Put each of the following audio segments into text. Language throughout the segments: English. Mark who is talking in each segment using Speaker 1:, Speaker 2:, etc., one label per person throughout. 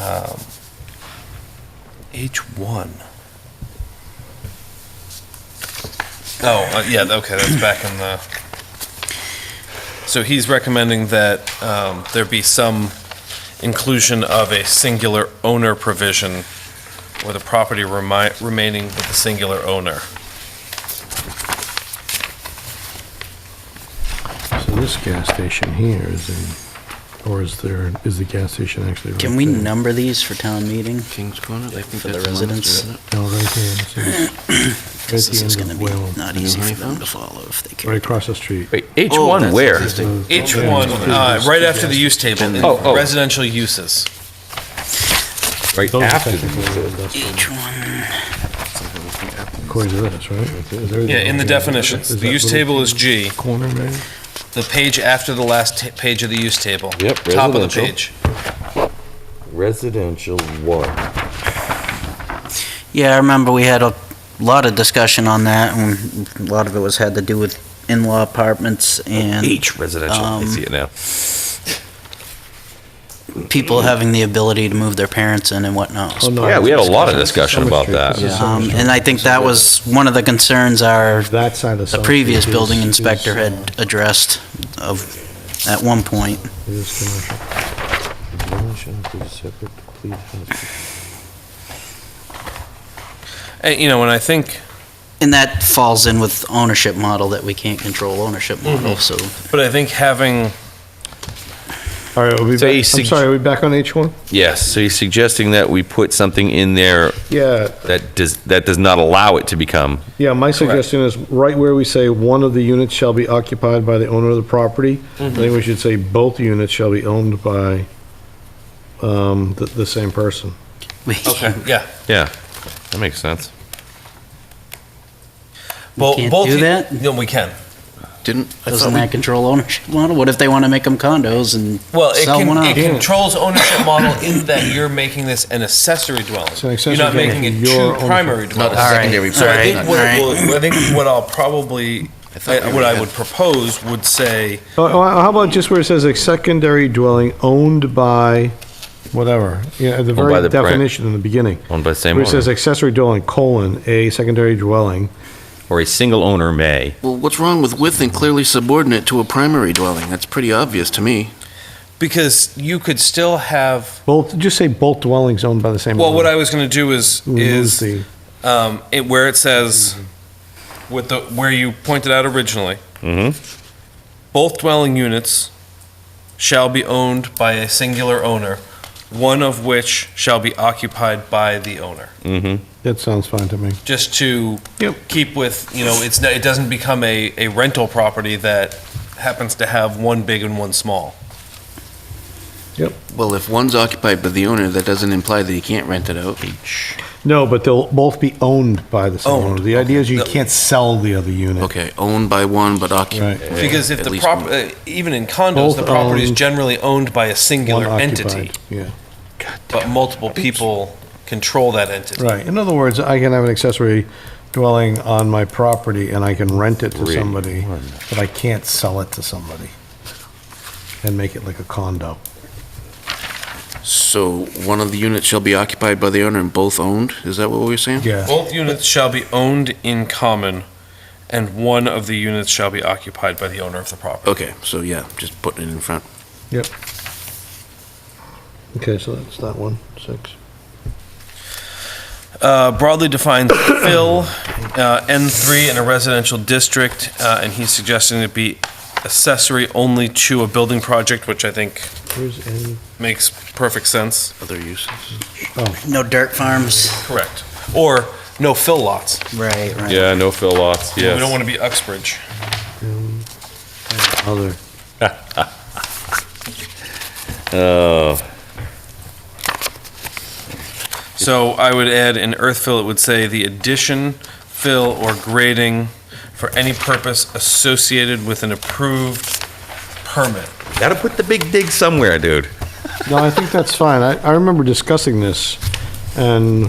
Speaker 1: Um, H1. Oh, uh, yeah, okay, that's back in the, so he's recommending that um, there be some inclusion of a singular owner provision with a property remi- remaining with a singular owner.
Speaker 2: So this gas station here is in, or is there, is the gas station actually right
Speaker 3: Can we
Speaker 2: there?
Speaker 3: number these for town meeting?
Speaker 4: King's Corner, I think
Speaker 3: For the
Speaker 4: that's one,
Speaker 3: residents.
Speaker 4: isn't it?
Speaker 2: No, right here. This is-
Speaker 3: Because
Speaker 2: Right at
Speaker 3: this
Speaker 2: the
Speaker 3: is
Speaker 2: end
Speaker 3: gonna
Speaker 2: of
Speaker 3: be
Speaker 2: Whalen.
Speaker 3: not
Speaker 4: New
Speaker 3: easy for them
Speaker 4: Haven?
Speaker 3: to follow if they
Speaker 2: Right
Speaker 3: care.
Speaker 2: across the street.
Speaker 5: Wait,
Speaker 4: Oh,
Speaker 5: H1
Speaker 4: that's
Speaker 5: where?
Speaker 4: existing.
Speaker 2: one,
Speaker 1: H1,
Speaker 2: uh,
Speaker 1: right after the use table, in
Speaker 5: Oh, oh.
Speaker 1: residential uses.
Speaker 5: Right
Speaker 2: Those are
Speaker 5: after the
Speaker 2: technically industrial,
Speaker 3: Each one,
Speaker 2: According to this, right? Is there-
Speaker 1: Yeah, in the definitions.
Speaker 2: Is
Speaker 1: The
Speaker 2: that
Speaker 1: use
Speaker 2: little
Speaker 1: table is G.
Speaker 2: Corner, maybe?
Speaker 1: The page after the last ta- page of the use table.
Speaker 4: Yep,
Speaker 1: Top of the
Speaker 4: residential.
Speaker 1: page.
Speaker 4: Residential one.
Speaker 3: yeah, I remember we had a lot of discussion on that, and a lot of it was had to do with in-law apartments and
Speaker 5: H residential. I
Speaker 3: Um,
Speaker 5: see it now.
Speaker 3: people having the ability to move their parents in and whatnot.
Speaker 2: Oh, no,
Speaker 5: Yeah, we had a lot of
Speaker 2: it's
Speaker 5: discussion
Speaker 2: Summer
Speaker 5: about
Speaker 2: Street.
Speaker 5: that.
Speaker 2: This is Summer
Speaker 3: Um,
Speaker 2: Street.
Speaker 3: and I think that was one of the concerns our,
Speaker 2: That side of the.
Speaker 3: the
Speaker 2: Summer
Speaker 3: previous
Speaker 2: Street
Speaker 3: building
Speaker 2: is-
Speaker 3: inspector
Speaker 2: is,
Speaker 3: had addressed of, at one point.
Speaker 2: uh, is commercial.
Speaker 1: And, you know, and I think,
Speaker 3: And that falls in with ownership model, that we can't control ownership model, so
Speaker 1: but I think having,
Speaker 2: All right, are we
Speaker 5: So
Speaker 2: back-
Speaker 5: you
Speaker 2: I'm
Speaker 5: sug-
Speaker 2: sorry, are we back on H1?
Speaker 5: Yes, so you're suggesting that we put something in there
Speaker 2: Yeah,
Speaker 5: that does, that does not allow it to become,
Speaker 2: Yeah, my suggestion is right where we say one of the units shall be occupied by the owner of the property, I think we should say both units shall be owned by um, the, the same person.
Speaker 3: we
Speaker 1: okay, yeah.
Speaker 5: yeah, that makes sense.
Speaker 1: Bo-
Speaker 3: can't
Speaker 1: both
Speaker 3: do
Speaker 1: u-
Speaker 3: that?
Speaker 1: No, we can.
Speaker 4: Didn't, I
Speaker 3: Doesn't
Speaker 4: thought
Speaker 3: that control ownership model? What if they want to make them condos and
Speaker 1: Well, it,
Speaker 3: sell
Speaker 1: can,
Speaker 3: one
Speaker 1: it
Speaker 3: off?
Speaker 1: controls ownership model in that you're making this an accessory dwelling.
Speaker 2: an accessory
Speaker 1: you're not
Speaker 2: dwelling
Speaker 1: making it
Speaker 2: to your
Speaker 1: two
Speaker 2: ownership.
Speaker 1: primary dwellings.
Speaker 4: a secondary
Speaker 1: So I
Speaker 4: dwelling.
Speaker 1: think
Speaker 3: Alright,
Speaker 1: what, it
Speaker 3: alright.
Speaker 1: will- I think what I'll probably, I- what I would propose would say,
Speaker 2: Oh, oh, How about just where it says a secondary dwelling owned by whatever, you know, at the
Speaker 5: by
Speaker 2: very
Speaker 5: the- right.
Speaker 2: definition in the beginning.
Speaker 5: Owned by the same
Speaker 2: Where it says
Speaker 5: owner,
Speaker 2: accessory dwelling, colon, a secondary dwelling.
Speaker 5: or a single owner may.
Speaker 4: well, what's wrong with with and clearly subordinate to a primary dwelling? That's pretty obvious to me.
Speaker 1: because you could still have,
Speaker 2: Both, just say both dwellings owned by the same.
Speaker 1: well, what
Speaker 2: owner.
Speaker 1: I was going to do is, is
Speaker 2: Removes the- Mm-hmm.
Speaker 1: um, it, where it says, with the, where you pointed out originally,
Speaker 5: Mm-hmm.
Speaker 1: both dwelling units shall be owned by a singular owner, one of which shall be occupied by the owner.
Speaker 5: Mm-hmm.
Speaker 2: That sounds fine to me.
Speaker 1: Just to
Speaker 2: Yep.
Speaker 1: keep with, you know, it's, not- it doesn't become a, a rental property that happens to have one big and one small.
Speaker 4: Well, if one's occupied by the owner, that doesn't imply that he can't rent it out.
Speaker 2: No, but they'll both be owned by the same
Speaker 1: Owned,
Speaker 2: owner. The idea is you
Speaker 1: okay.
Speaker 2: can't sell the other unit.
Speaker 4: Okay, owned by one but
Speaker 2: Right.
Speaker 4: occupied.
Speaker 1: Because if
Speaker 4: At
Speaker 1: the
Speaker 4: least
Speaker 1: prop,
Speaker 4: one.
Speaker 1: uh, even in condos, the
Speaker 2: Both
Speaker 1: property is
Speaker 2: owned,
Speaker 1: generally owned by a singular
Speaker 2: One
Speaker 1: entity,
Speaker 2: occupied, Yeah,
Speaker 1: but multiple people control that entity.
Speaker 2: right. In other words, I can have an accessory dwelling on my property and I can rent it to
Speaker 5: Three,
Speaker 2: somebody,
Speaker 5: one.
Speaker 2: but I can't sell it to somebody and make it like a condo.
Speaker 4: So one of the units shall be occupied by the owner and both owned? Is that what we were saying?
Speaker 2: Yeah.
Speaker 1: Both units shall be owned in common, and one of the units shall be occupied by the owner of the property.
Speaker 4: Okay, so yeah, just putting it in front.
Speaker 2: Okay, so that's that one, six.
Speaker 1: Uh, broadly defined fill, uh, N3 in a residential district, uh, and he's suggesting it be accessory only to a building project, which I think
Speaker 2: Where's N?
Speaker 1: makes perfect sense.
Speaker 4: Other uses.
Speaker 3: No dirt farms?
Speaker 1: Correct. Or no fill lots.
Speaker 3: Right, right.
Speaker 5: Yeah, no fill lots,
Speaker 1: We don't
Speaker 5: yes.
Speaker 1: want to be Uxbridge.
Speaker 2: M, um, Other.
Speaker 5: Oh,
Speaker 1: So I would add in earth fill, it would say the addition, fill, or grading for any purpose associated with an approved permit.
Speaker 5: gotta put the big dig somewhere, dude.
Speaker 2: No, I think that's fine. I, I remember discussing this and,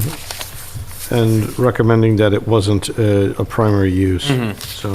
Speaker 2: and recommending that it wasn't a, a primary use, so.